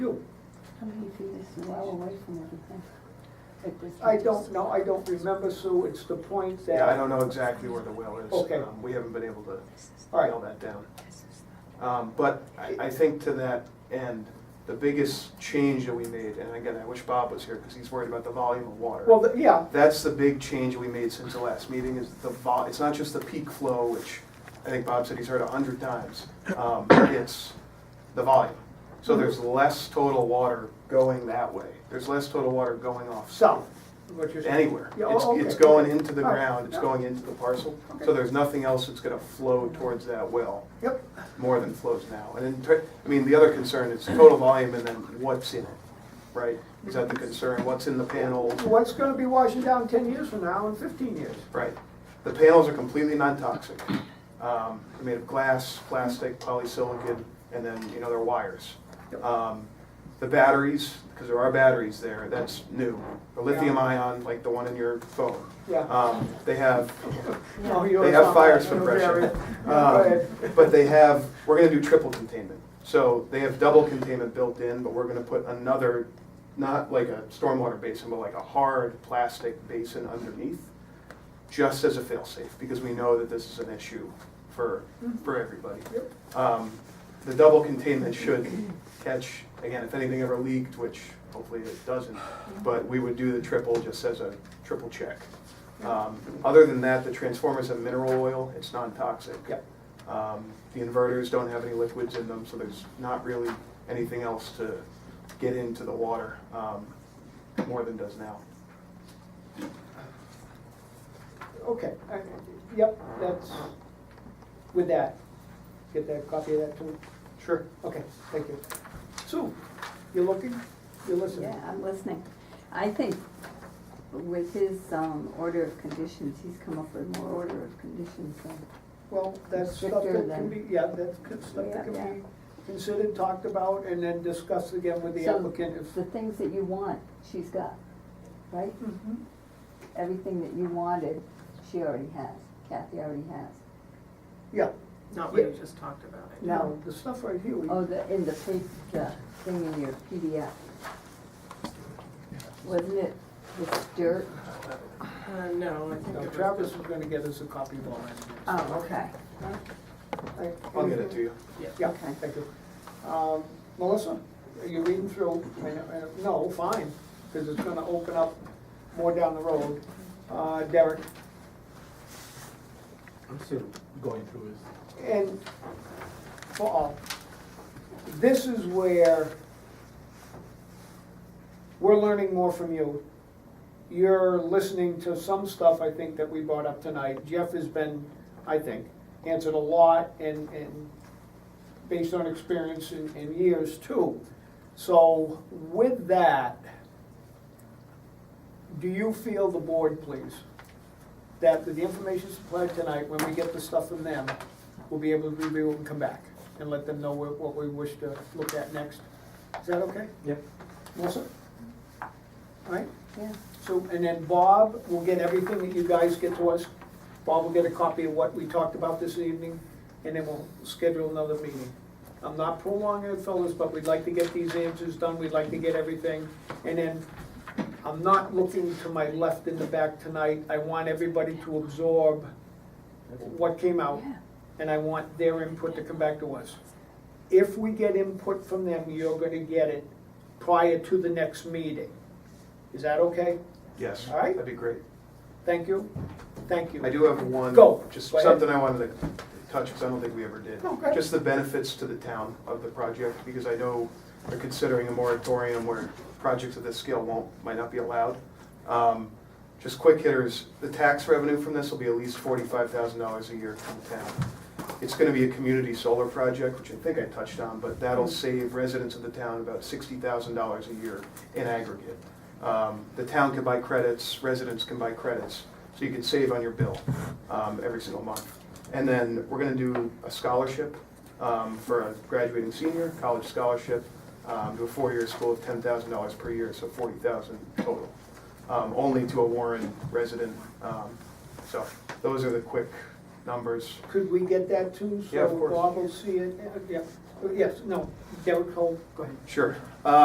do. How many feet is the well away from everything? It was- I don't know, I don't remember, Sue, it's the point that. Yeah, I don't know exactly where the well is. Okay. Um, We haven't been able to All right. nail that down. Um, But I, I think to that end, the biggest change that we made, and again, I wish Bob was here because he's worried about the volume of water. Well, th- yeah, That's the big change we made since the last meeting is the vol, it's not just the peak flow, which I think Bob said he's heard a hundred times. Um, It's the volume. So Mm-hmm. there's less total water going that way. There's less total water going off south, what you're saying. anywhere. Yeah, It's, oh, it's okay. going into the All right. ground, it's Yeah. going into the parcel. Okay. So there's nothing else that's gonna flow towards that well, Yep, more than flows now. And in, ter- I mean, the other concern is total volume and then what's in it, right? Is that the concern? What's in the panel? what's gonna be washing down ten years from now and fifteen years? Right. The panels are completely non-toxic. Um, They're made of glass, plastic, polysilicon, and then, you know, they're wires. Um, The batteries, because there are batteries there, that's new. The lithium ion, like the one in your phone. Yeah. Um, They have No, you they don't have fire sound like suppression. an Um, area. But they have, we're gonna do triple containment. So they have double containment built in, but we're gonna put another, not like a stormwater basin, but like a hard plastic basin underneath, just as a fail-safe, because we know that this is an issue for, for everybody. Um, The double containment should catch, again, if anything ever leaked, which hopefully it doesn't, but we would do the triple just as a triple check. Um, Other than that, the transformers have mineral oil, it's non-toxic. Yep. Um, The inverters don't have any liquids in them, so there's not really anything else to get into the water, um, more than does now. Okay, I- yep, that's, with that, get that copy of that too. Sure. Okay, thank you. Sue, you're looking, you're listening. Yeah, I'm listening. I think with his um, order of conditions, he's come up with more order of conditions than. Well, that's stuff Stricter that can than- be, yeah, that's good stuff that Yeah, can yeah. be considered, talked about, and then discussed again with the So applicant if. The things that you want, she's got, right? Mhm. Everything that you wanted, she already has. Kathy already has. Yeah, Not what you just talked about. I No. now, the stuff right here, we, Oh, the, in the pa- the thing in your PDF. Wasn't it this dirt? guess. Uh, no, I think now it Travis was, is gonna get us a copy of all that. Oh, okay, okay. I'll get it to you. Yeah, Okay. thank you. Um, Melissa, are you reading through? I mean, uh, No, fine, because it's gonna open up more down the road. Uh, Derek, I'm still going through this. and for all, this is where we're learning more from you. You're listening to some stuff, I think, that we brought up tonight. Jeff has been, I think, answered a lot and, and based on experience and, and years too. So with that, do you feel the board, please, that with the information supplied tonight, when we get the stuff from them, we'll be able to review it and come back and let them know what, what we wish to look at next? Is that okay? Yep. Melissa? All right, yeah. so, and then Bob will get everything that you guys get to us. Bob will get a copy of what we talked about this evening, and then we'll schedule another meeting. I'm not prolonging it, fellas, but we'd like to get these answers done, we'd like to get everything, and then I'm not looking to my left in the back tonight. I want everybody to absorb what came out, Yeah. and I want their input to come back to us. If we get input from them, you're gonna get it prior to the next meeting. Is that okay? Yes. All right. That'd be great. Thank you, thank you. I do have one. Go. Just Go ahead. something I wanted to touch, because I don't think we ever did. No, go ahead. Just the benefits to the town of the project, because I know they're considering a moratorium where projects of this scale won't, might not be allowed. Um, Just quick hitters, the tax revenue from this will be at least forty-five thousand dollars a year to the town. It's gonna be a community solar project, which I think I touched on, but that'll save residents of the town about sixty thousand dollars a year in aggregate. Um, The town can buy credits, residents can buy credits, so you can save on your bill um, every single month. And then we're gonna do a scholarship um, for a graduating senior, college scholarship, um, to a four-year school of ten thousand dollars per year, so forty thousand total. um, Only to a Warren resident. Um, So those are the quick numbers. Could we get that too? Yeah, of course. So Bob will see it, yeah, yes, no, Derek Cole, go ahead. Sure.